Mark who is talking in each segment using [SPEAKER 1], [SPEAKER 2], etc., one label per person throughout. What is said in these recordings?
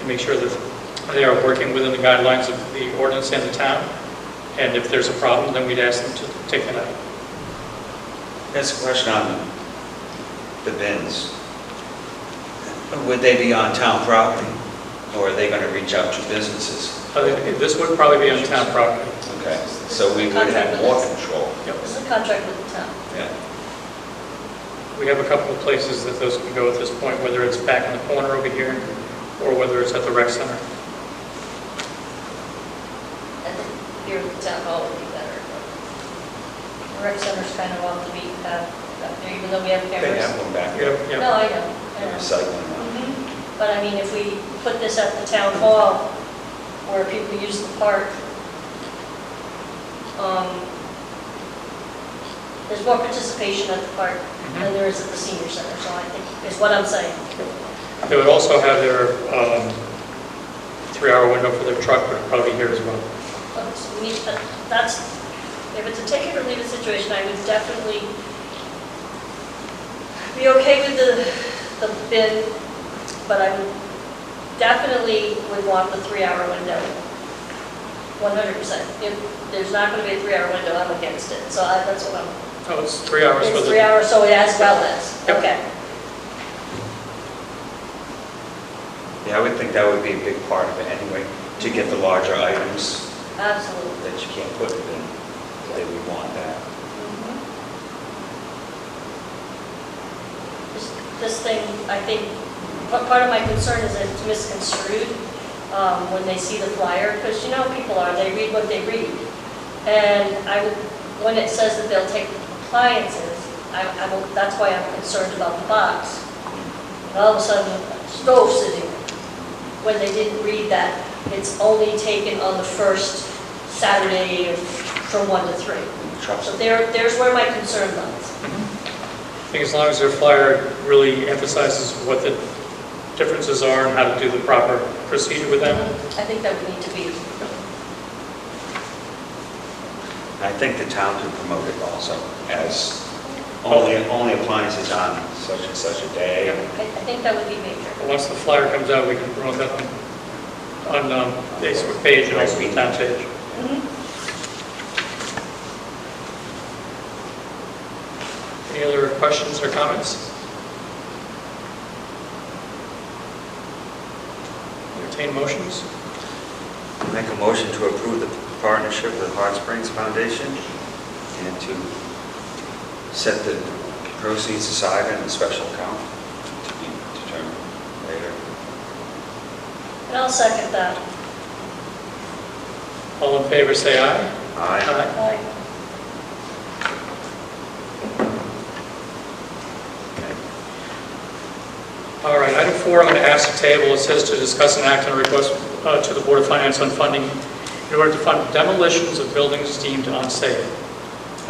[SPEAKER 1] to make sure that they are working within the guidelines of the ordinance and the town. And if there's a problem, then we'd ask them to take it out.
[SPEAKER 2] That's a question on the bins. Would they be on town property, or are they going to reach out to businesses?
[SPEAKER 1] I think This would probably be on town property.
[SPEAKER 2] Okay, so we would have more control.
[SPEAKER 1] Yep.
[SPEAKER 3] This is a contract with the town.
[SPEAKER 2] Yeah.
[SPEAKER 1] We have a couple of places that those can go at this point, whether it's back in the corner over here or whether it's at the rec center.
[SPEAKER 3] And here at the town hall would be better. The Rec center's kind of off the beaten path, up there, even though we have
[SPEAKER 2] They
[SPEAKER 3] cameras.
[SPEAKER 2] have one back
[SPEAKER 1] Yeah, yeah.
[SPEAKER 2] there,
[SPEAKER 3] No, I know, I
[SPEAKER 2] the
[SPEAKER 3] know.
[SPEAKER 2] recycling one.
[SPEAKER 3] Mhm. But I mean, if we put this at the town hall, where people use the park, um, there's more participation at the park than there is at the senior center, so I think, is what I'm saying.
[SPEAKER 1] They would also have their um, three-hour window for their truck, would probably be here as well.
[SPEAKER 3] But we need- but That's, if it's a take it or leave it situation, I would definitely be okay with the, the bid, but I would definitely would want the three-hour window. 100%. If there's not going to be a three-hour window, I'm against it, so I- that's what I'm,
[SPEAKER 1] Oh, it's three hours for
[SPEAKER 3] it's three
[SPEAKER 1] the,
[SPEAKER 3] hours, so as well as,
[SPEAKER 1] Yep.
[SPEAKER 3] okay.
[SPEAKER 2] Yeah, I would think that would be a big part of it anyway, to get the larger items
[SPEAKER 3] Absolutely.
[SPEAKER 2] that you can't put in, they would want that.
[SPEAKER 3] This- Mm-hmm. This thing, I think, pa- part of my concern is that it's misconstrued um, when they see the flyer, because you know how people are, they read what they read. And I, would- when it says that they'll take the appliances, I, I will- that's why I'm concerned about the box. And all of a sudden, stove sitting, when they didn't read that, it's only taken on the first Saturday of- from one to three.
[SPEAKER 2] Trust
[SPEAKER 3] So
[SPEAKER 2] them.
[SPEAKER 3] there, there's where my concern lies.
[SPEAKER 1] I think as long as their flyer really emphasizes what the differences are and how to do the proper procedure with them.
[SPEAKER 3] I think that would need to be,
[SPEAKER 2] I think the town could promote it also as only, only appliances on such and such a day.
[SPEAKER 3] I I think that would be major.
[SPEAKER 1] But Once the flyer comes out, we can promote that on, on um, Facebook page and also the town page.
[SPEAKER 3] Mm-hmm.
[SPEAKER 1] Any other questions or comments? Entertain motions?
[SPEAKER 2] Make a motion to approve the partnership with Hot Springs Foundation and to set the proceeds aside in a special account to be determined later.
[SPEAKER 3] And I'll second that.
[SPEAKER 1] All in favor, say aye.
[SPEAKER 2] Aye.
[SPEAKER 3] Aye.
[SPEAKER 1] All right, item four, I'm going to ask to table, it says to discuss and act on a request uh, to the Board of Finance on funding in order to fund demolitions of buildings deemed unsafe.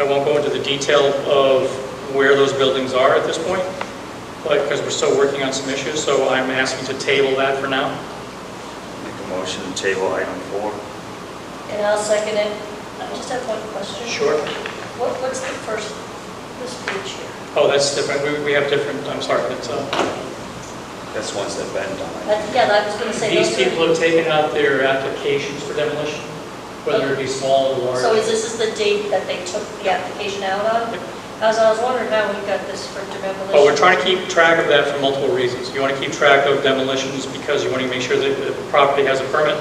[SPEAKER 1] I won't go into the detail of where those buildings are at this point, but, because we're still working on some issues, so I'm asking to table that for now.
[SPEAKER 2] Make a motion to table item four.
[SPEAKER 3] And I'll second it. I just have one question.
[SPEAKER 1] Sure.
[SPEAKER 3] What, what's the first, this page here?
[SPEAKER 1] Oh, that's different, we, we have different, I'm sorry, that's, uh,
[SPEAKER 2] That's ones that Ben done.
[SPEAKER 3] That- Yeah, I was going to say.
[SPEAKER 1] these
[SPEAKER 3] those are-
[SPEAKER 1] people have taken out their applications for demolition, whether it be small or large.
[SPEAKER 3] So is this is the date that they took the application out on? As I was wondering, now we've got this for demolition.
[SPEAKER 1] Well, Oh, we're trying to keep track of that for multiple reasons. You want to keep track of demolitions because you want to make sure that the property has a permit.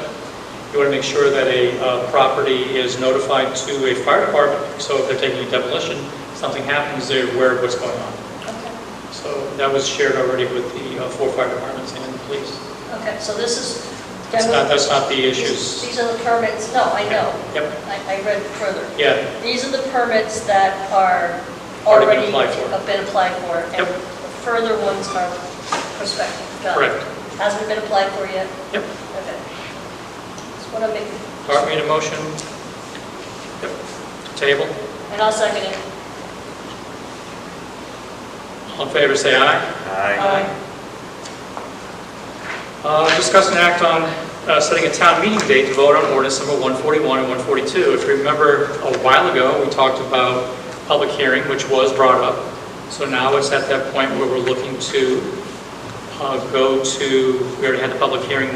[SPEAKER 1] You want to make sure that a uh, property is notified to a fire department, so if they're taking a demolition, something happens, they're aware of what's going on.
[SPEAKER 3] Okay.
[SPEAKER 1] So that was shared already with the uh, four fire departments and the police.
[SPEAKER 3] Okay, so this is.
[SPEAKER 1] That's not, that's not the
[SPEAKER 3] These
[SPEAKER 1] issues.
[SPEAKER 3] these are the permits, no, I know.
[SPEAKER 1] Yep,
[SPEAKER 3] I, I read further.
[SPEAKER 1] yeah,
[SPEAKER 3] These are the permits that are
[SPEAKER 1] Already
[SPEAKER 3] already.
[SPEAKER 1] been applied for.
[SPEAKER 3] have been applied for, and
[SPEAKER 1] Yep.
[SPEAKER 3] the further ones are prospective. Got it.
[SPEAKER 1] correct.
[SPEAKER 3] Hasn't been applied for yet?
[SPEAKER 1] Yep.
[SPEAKER 3] Okay. That's what I'm making,
[SPEAKER 1] Art made a motion. Yep, table.
[SPEAKER 3] and I'll second it.
[SPEAKER 1] All in favor, say aye.
[SPEAKER 2] Aye.
[SPEAKER 3] Um,
[SPEAKER 1] Uh, Discuss and act on uh, setting a town meeting date to vote on ordinance number 141 and 142. If you remember, a while ago, we talked about public hearing, which was brought up. So now it's at that point where we're looking to uh, go to, we already had the public hearing